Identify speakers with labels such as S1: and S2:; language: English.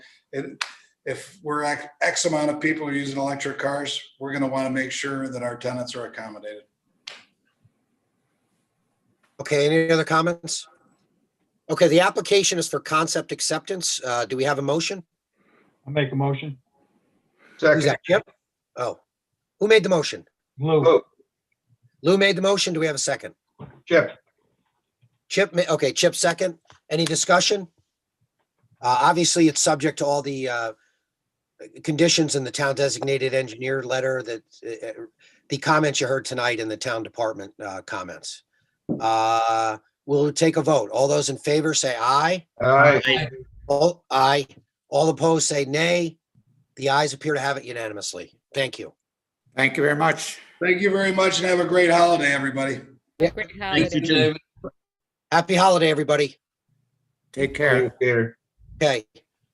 S1: it, if we're X, X amount of people are using electric cars, we're gonna wanna make sure that our tenants are accommodated.
S2: Okay, any other comments? Okay, the application is for concept acceptance. Uh, do we have a motion?
S3: I'll make a motion.
S2: Who's that? Chip? Oh, who made the motion?
S3: Lou,
S2: Lou made the motion. Do we have a second?
S4: Chip,
S2: Chip, ma- okay, Chip second. Any discussion? Uh, obviously, it's subject to all the, uh, conditions in the town designated engineer letter that, uh, the comments you heard tonight in the town department, uh, comments. Uh, we'll take a vote. All those in favor say aye.
S4: aye,
S2: All, aye. All opposed say nay. The ayes appear to have it unanimously. Thank you.
S5: Thank you very much.
S1: Thank you very much and have a great holiday, everybody.
S6: Great
S7: Thank you,
S6: holiday.
S7: David.
S2: Happy holiday, everybody.
S5: Take care.
S4: Peter.
S2: Okay.